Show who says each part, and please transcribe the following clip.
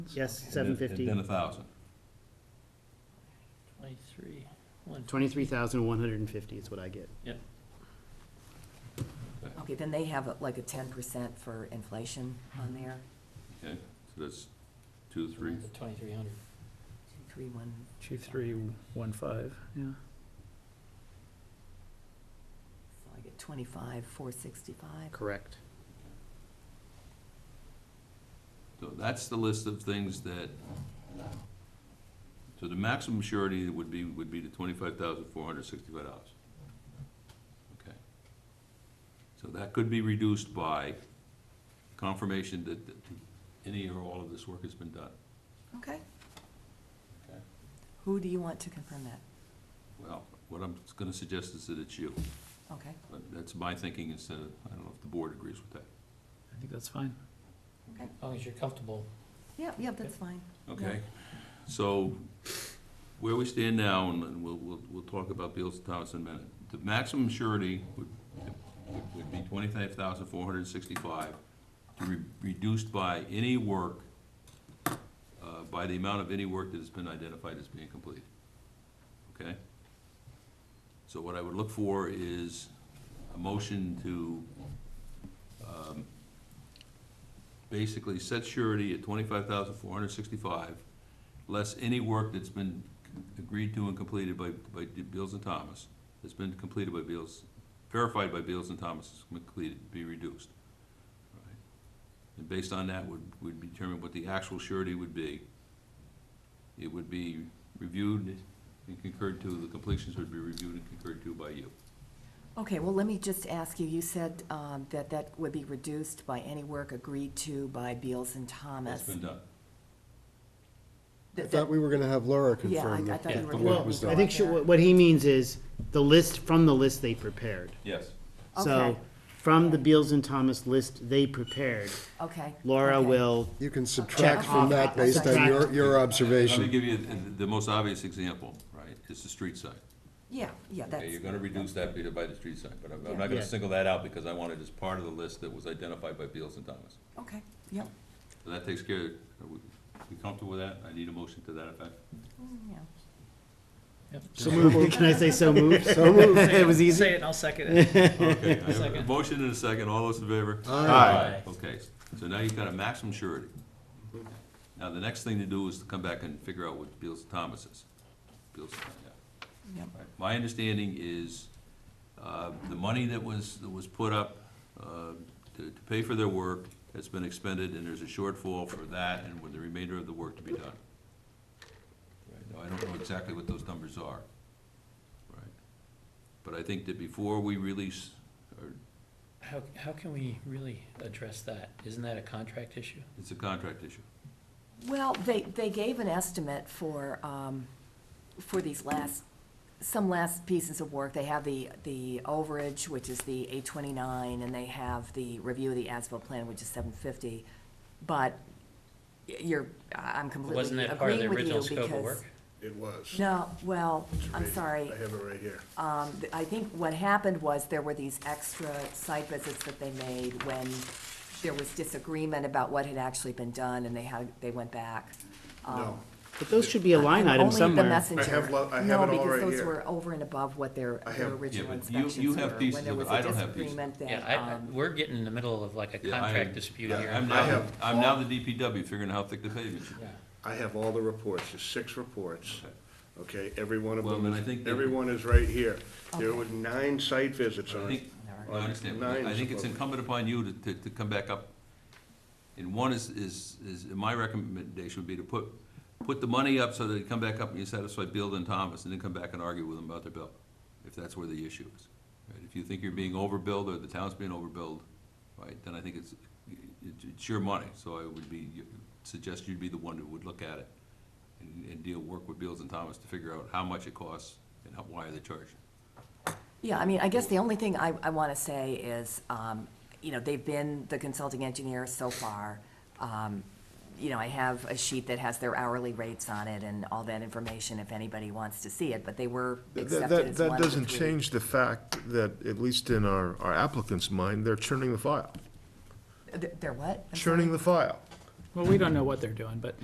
Speaker 1: Yes,
Speaker 2: and then-
Speaker 1: seven fifty.
Speaker 2: And then a thousand.
Speaker 3: Twenty-three, one,
Speaker 1: Twenty-three thousand one hundred and fifty is what I get.
Speaker 4: Okay, then they have like a ten percent for inflation on there,
Speaker 2: Okay, so that's two, three,
Speaker 3: twenty-three hundred.
Speaker 4: two, three, one.
Speaker 5: Two, three, one, five, yeah.
Speaker 4: So I get twenty-five, four sixty-five.
Speaker 1: Correct.
Speaker 2: so that's the list of things that, so the maximum surety would be, would be the twenty-five thousand four hundred sixty-five dollars. Okay. So that could be reduced by confirmation that, that any or all of this work has been done.
Speaker 4: Okay.
Speaker 2: Okay.
Speaker 4: Who do you want to confirm that?
Speaker 2: Well, what I'm gonna suggest is that it's you,
Speaker 4: Okay,
Speaker 2: but that's my thinking instead of, I don't know if the board agrees with that,
Speaker 5: I think that's fine.
Speaker 3: As long as you're comfortable.
Speaker 4: yeah, yeah, that's fine.
Speaker 2: okay? So, where we stand now, and we'll, we'll, we'll talk about Beals and Thomas in a minute. The maximum surety would, would- would be twenty-five thousand four hundred and sixty-five, to be reduced by any work, uh, by the amount of any work that has been identified as being complete, okay? So what I would look for is a motion to um, basically set surety at twenty-five thousand four hundred sixty-five, less any work that's been agreed to and completed by, by Beals and Thomas, that's been completed by Beals, verified by Beals and Thomas, is completed, be reduced. Alright. And based on that, would, would determine what the actual surety would be. It would be reviewed and concurred to, the completions would be reviewed and concurred to by you.
Speaker 4: Okay, well, let me just ask you, you said um, that that would be reduced by any work agreed to by Beals and
Speaker 2: That's
Speaker 4: Thomas.
Speaker 2: been done.
Speaker 6: I
Speaker 4: That-
Speaker 6: thought we were gonna have Laura
Speaker 4: that- Yeah, I
Speaker 6: confirm
Speaker 4: I
Speaker 6: that.
Speaker 4: thought you
Speaker 3: Yeah.
Speaker 4: were.
Speaker 6: Well,
Speaker 4: gonna
Speaker 6: it was
Speaker 4: go
Speaker 6: done.
Speaker 1: I think she-
Speaker 4: there.
Speaker 1: what what he means is the list, from the list they prepared.
Speaker 2: Yes.
Speaker 1: So,
Speaker 4: Okay.
Speaker 1: from the Beals and Thomas list they prepared,
Speaker 4: Okay.
Speaker 1: Laura
Speaker 4: okay.
Speaker 1: will,
Speaker 6: You can subtract
Speaker 1: Check
Speaker 6: from
Speaker 1: off.
Speaker 6: that based on your,
Speaker 1: Subtract.
Speaker 6: your
Speaker 2: Let me
Speaker 6: observation.
Speaker 2: give you the- the most obvious example, right, is the street sign.
Speaker 4: Yeah, yeah,
Speaker 2: Okay,
Speaker 4: that's,
Speaker 2: you're gonna reduce that by the- by the street sign, but I'm I'm not
Speaker 1: Yeah.
Speaker 2: gonna single that out because I want it as part of the list that was identified by Beals and Thomas.
Speaker 4: okay, yep,
Speaker 2: So that takes care, of- are we we comfortable with that? I need a motion to that effect.
Speaker 4: Mm, yeah.
Speaker 6: So moved.
Speaker 1: can I say so moved?
Speaker 6: So moved.
Speaker 1: It was easy.
Speaker 3: Say it, and I'll second it.
Speaker 2: Okay, I have a
Speaker 3: Second.
Speaker 2: motion and a second, all those in favor?
Speaker 3: Aye. Aye.
Speaker 2: Okay, so now you've got a maximum surety. Now, the next thing to do is to come back and figure out what Beals and Thomas is. Beals, yeah.
Speaker 4: Yep.
Speaker 2: Right. My understanding is, uh, the money that was, that was put up, uh, to, to pay for their work has been expended, and there's a shortfall for that and with the remainder of the work to be done. Right, Now, I don't know exactly what those numbers are. Right. But I think that before we release, or,
Speaker 3: How, how can we really address that? Isn't that a contract issue?
Speaker 2: it's a contract issue.
Speaker 4: Well, they, they gave an estimate for, um, for these last, some last pieces of work. They have the, the overage, which is the eight twenty-nine, and they have the review of the ASBIL plan, which is seven fifty. But y- you're, I- I'm
Speaker 3: Wasn't
Speaker 4: completely
Speaker 3: that part of the
Speaker 4: agreeing with you
Speaker 3: original
Speaker 4: because.
Speaker 3: scope of work?
Speaker 6: It was.
Speaker 4: No, well, I'm sorry.
Speaker 6: have it right here.
Speaker 4: Um, th- I think what happened was there were these extra site visits that they made when there was disagreement about what had actually been done, and they had, they went back. Um,
Speaker 1: But those should be a line
Speaker 4: I'm
Speaker 1: item
Speaker 4: Only the
Speaker 1: somewhere.
Speaker 4: messenger.
Speaker 6: lo- I have
Speaker 4: No,
Speaker 6: it all right
Speaker 4: because those
Speaker 6: here.
Speaker 4: were over and above what their,
Speaker 6: I
Speaker 4: their
Speaker 6: have-
Speaker 2: Yeah,
Speaker 4: original
Speaker 2: but you- you
Speaker 4: inspections were.
Speaker 2: have pieces
Speaker 4: when there
Speaker 2: of it.
Speaker 4: was a
Speaker 2: I don't have pieces.
Speaker 4: disagreement that,
Speaker 3: Yeah, I- I,
Speaker 4: um,
Speaker 3: we're getting in the middle of like a
Speaker 2: Yeah, I-
Speaker 3: contract dispute
Speaker 2: yeah,
Speaker 3: here.
Speaker 2: I'm
Speaker 7: I
Speaker 2: now,
Speaker 7: have-
Speaker 2: I'm now the DPW figuring out how thick the pavement should be.
Speaker 3: Yeah.
Speaker 7: I have all the reports, there's six reports, okay, every one of
Speaker 2: Well, then
Speaker 7: them,
Speaker 2: I think
Speaker 7: is-
Speaker 2: that-
Speaker 7: every one is right here. There
Speaker 4: Okay.
Speaker 7: were nine site visits
Speaker 2: I
Speaker 7: on it.
Speaker 2: think, I understand, but
Speaker 7: Nine
Speaker 2: I
Speaker 7: is
Speaker 2: think it's
Speaker 7: above.
Speaker 2: incumbent upon you to, to, to come back up. And one is, is, is, my recommendation would be to put, put the money up so that you come back up and you satisfy Beal and Thomas, and then come back and argue with them about their bill, if that's where the issue is. Right, If you think you're being overbilled or the town's being overbilled, right, then I think it's, it- it's your money, so I would be, suggest you'd be the one who would look at it and, and deal, work with Beals and Thomas to figure out how much it costs and how, why are they charging.
Speaker 4: Yeah, I mean, I guess the only thing I, I want to say is, um, you know, they've been the consulting engineer so far. Um, You know, I have a sheet that has their hourly rates on it and all that information if anybody wants to see it, but they were
Speaker 8: That,
Speaker 4: accepted as
Speaker 8: that,
Speaker 4: one
Speaker 8: that
Speaker 4: of the
Speaker 8: doesn't
Speaker 4: three.
Speaker 8: change the fact that, at least in our, our applicant's mind, they're churning the file,
Speaker 4: Th- They're what? I'm sorry.
Speaker 8: churning the file.
Speaker 5: Well, we don't know what they're doing, but